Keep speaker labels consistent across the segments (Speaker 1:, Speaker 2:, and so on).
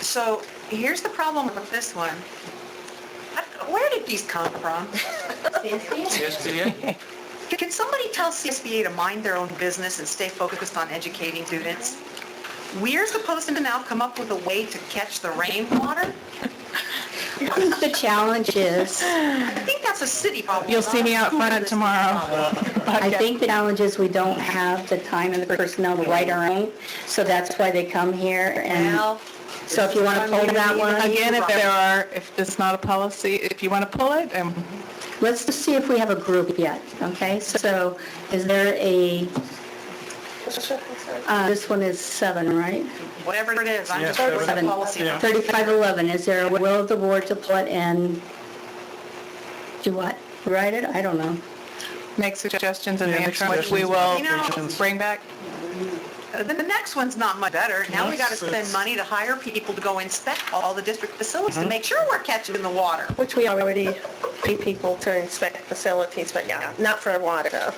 Speaker 1: So here's the problem with this one. I- Where did these come from?
Speaker 2: SBA?
Speaker 1: Can somebody tell CSBA to mind their own business and stay focused on educating students? We're supposed to now come up with a way to catch the rainwater?
Speaker 3: I think the challenge is,
Speaker 1: I think that's a city problem.
Speaker 4: You'll see me out
Speaker 1: not a
Speaker 4: front
Speaker 1: school
Speaker 4: tomorrow.
Speaker 3: I think the challenge is we don't have the time and the personnel to write our own, so that's why they come here
Speaker 2: Uh,
Speaker 1: business.
Speaker 3: and,
Speaker 1: Well,
Speaker 3: so if you want to pull that one,
Speaker 4: Again, if there are, if it's not a policy, if you want to pull it, and
Speaker 3: let's just see if we have a group yet, okay? So is there a, uh, this one is seven, right?
Speaker 1: whatever it is, I'm just
Speaker 2: Yeah,
Speaker 1: focused on
Speaker 3: seven.
Speaker 1: policy.
Speaker 2: Yeah.
Speaker 3: 3511, is there a will of the board to pull it and do what? Write it? I don't know.
Speaker 4: make suggestions in the
Speaker 2: Yeah, make
Speaker 4: interim, which we will
Speaker 2: suggestions.
Speaker 1: You know-
Speaker 4: bring back.
Speaker 1: Uh, Then the next one's not much better. Now we gotta
Speaker 2: Yes,
Speaker 1: spend
Speaker 2: it's-
Speaker 1: money to hire people to go inspect all the district facilities
Speaker 2: Mm-hmm.
Speaker 1: to make sure we're catching the water.
Speaker 5: Which we already pay people to inspect facilities, but yeah, not for water though.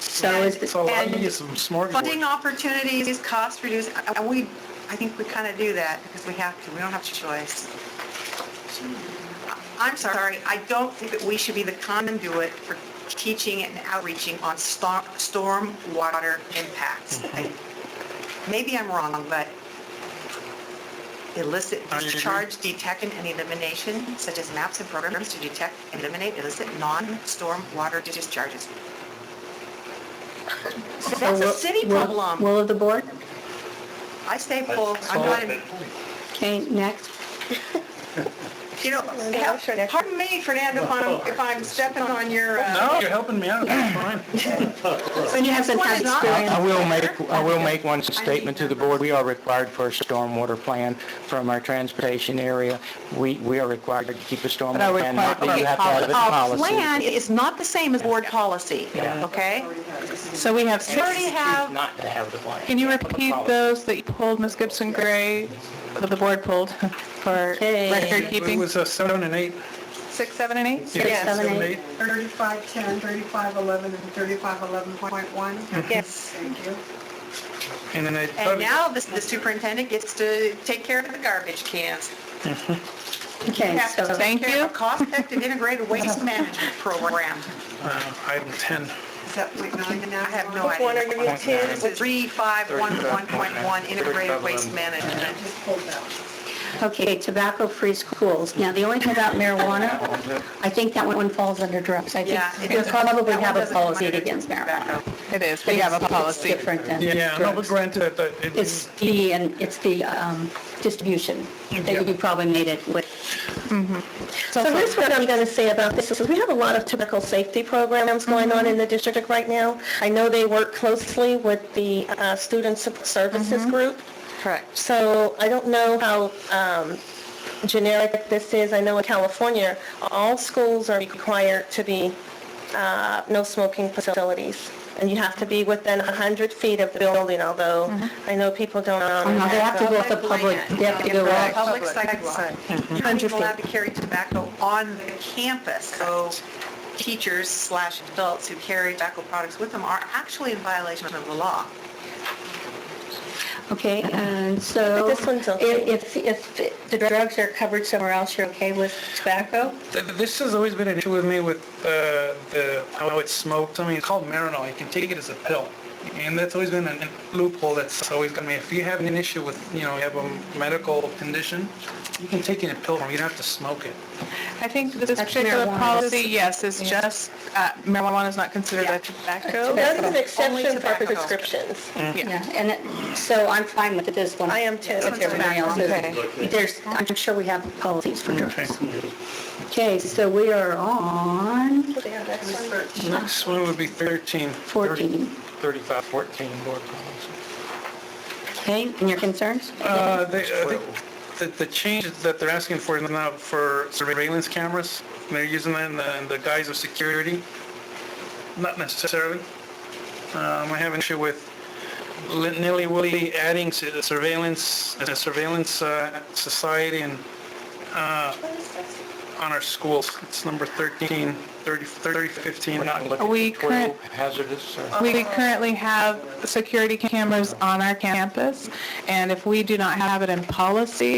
Speaker 3: So is, the-
Speaker 2: So I need some
Speaker 1: Funding
Speaker 2: smorgasbord.
Speaker 1: opportunities, cost reduce, and we, I think we kind of do that because we have to, we don't have choice. I'm sorry, I don't think that we should be the conduit for teaching and outreaching on storm, storm water impacts. I- Maybe I'm wrong, but illicit
Speaker 2: I agree.
Speaker 1: discharge detection and elimination, such as maps and programs to detect and eliminate illicit non-storm water discharges.
Speaker 3: so
Speaker 1: That's a
Speaker 3: will-
Speaker 1: city
Speaker 3: will-
Speaker 1: problem.
Speaker 3: Will of the board?
Speaker 1: I stay full. I'm not, in-
Speaker 3: Okay, next.
Speaker 1: you know,
Speaker 5: I'm sure next-
Speaker 1: pardon me, Fernando, if I'm, if I'm stepping on your, uh,
Speaker 2: No, you're helping me out, that's fine.
Speaker 3: When you have some
Speaker 1: This
Speaker 3: kind
Speaker 1: one
Speaker 3: of
Speaker 1: is not-
Speaker 3: experience.
Speaker 6: I will make, I will make one statement to the board. We are required for a stormwater plan from our transportation area. We, we are required to keep a
Speaker 4: But I
Speaker 6: stormwater
Speaker 4: would
Speaker 6: plan, not
Speaker 4: require
Speaker 6: that you have to have a
Speaker 1: our
Speaker 6: policy.
Speaker 1: plan is not the same as board policy, okay?
Speaker 4: So we have
Speaker 1: We already
Speaker 4: six.
Speaker 1: have,
Speaker 6: Not to have the plan.
Speaker 4: Can you repeat those that you pulled, Ms. Gibson Gray, that the board pulled for
Speaker 3: Okay.
Speaker 4: record
Speaker 2: It
Speaker 4: keeping?
Speaker 2: was uh, seven and eight.
Speaker 4: Six, seven, and eight?
Speaker 2: Yeah,
Speaker 3: seven, eight.
Speaker 7: 3510, 3511, and 3511.1.
Speaker 5: Yes.
Speaker 7: Thank you.
Speaker 2: And then I
Speaker 1: and
Speaker 2: probably,
Speaker 1: now the the superintendent gets to take care of the garbage cans.
Speaker 3: Okay,
Speaker 1: Have to
Speaker 3: so,
Speaker 1: take
Speaker 4: Thank
Speaker 1: care of
Speaker 4: you.
Speaker 1: a cost-effective integrated waste management program.
Speaker 2: uh, item 10.
Speaker 7: Is that point nine now?
Speaker 1: I have no
Speaker 5: Which one are
Speaker 1: idea.
Speaker 5: you
Speaker 1: This
Speaker 5: to?
Speaker 1: is 3511.1 integrated waste management.
Speaker 7: Just pulled that.
Speaker 3: okay, tobacco-free schools. Now, the only thing about marijuana, I think that one falls under drugs. I
Speaker 1: Yeah, it
Speaker 3: think we
Speaker 1: doesn't-
Speaker 3: probably
Speaker 1: that one
Speaker 3: have a
Speaker 1: doesn't come
Speaker 3: policy
Speaker 1: under
Speaker 3: against marijuana.
Speaker 4: It is, we have a
Speaker 3: It's-
Speaker 4: policy.
Speaker 3: It's different than
Speaker 2: Yeah, no, but
Speaker 3: drugs.
Speaker 2: granted, that it-
Speaker 3: It's the, and it's the um, distribution that you probably made it with.
Speaker 5: So here's what I'm going to say about this, Mm-hmm. is we have a lot of tobacco safety programs going on in the district right now. I know they work closely with the uh, Student Sup- Services Group,
Speaker 4: Correct.
Speaker 5: so I don't know how um, generic this is. I know in California, all schools are required to be uh, no smoking facilities, and you have to be within 100 feet of the building, although I know people don't... um,
Speaker 3: Now, they have to go with the public, they have to go
Speaker 1: Public
Speaker 3: with
Speaker 1: Public sidewalk. You're not even allowed to carry tobacco on the campus, so teachers slash adults who carry tobacco products with them are actually in violation of the law.
Speaker 3: Okay, and so
Speaker 5: But this one's
Speaker 3: i-
Speaker 5: okay.
Speaker 3: if, if the drugs are covered somewhere else, you're okay with tobacco?
Speaker 2: Th- This has always been an issue with me with uh, the how it's smoked. I mean, it's called Marinol. You can take it as a pill, and that's always been a loophole that's always gonna be. If you have an issue with, you know, you have a medical condition, you can take it in a pill form. You don't have to smoke it.
Speaker 4: I think this particular
Speaker 3: marijuana.
Speaker 4: policy, yes, is just, uh, marijuana is not considered a tobacco.
Speaker 5: That's an
Speaker 1: Only
Speaker 5: exception for
Speaker 1: tobacco.
Speaker 5: prescriptions.
Speaker 3: Yeah, and it- so I'm fine with this one.
Speaker 5: I am too.
Speaker 3: If everybody else is. There's, I'm sure we have policies for drugs. Okay, so we are on
Speaker 2: Next one would be 13.
Speaker 3: 14.
Speaker 2: 35, 14 board policy.
Speaker 3: Okay, and your concerns?
Speaker 2: Uh, they, I think that the change that they're asking for is now for surveillance cameras. They're using that in the, in the guise of security. Not necessarily. Um, I have an issue with li- nilly-willy adding s- surveillance, a surveillance, uh, society and, uh, on our schools. It's number 13, 30, 30, 15, not looking.
Speaker 4: Are we current,
Speaker 6: Hazardous or?
Speaker 4: We currently have security cameras on our campus, and if we do not have it in policy,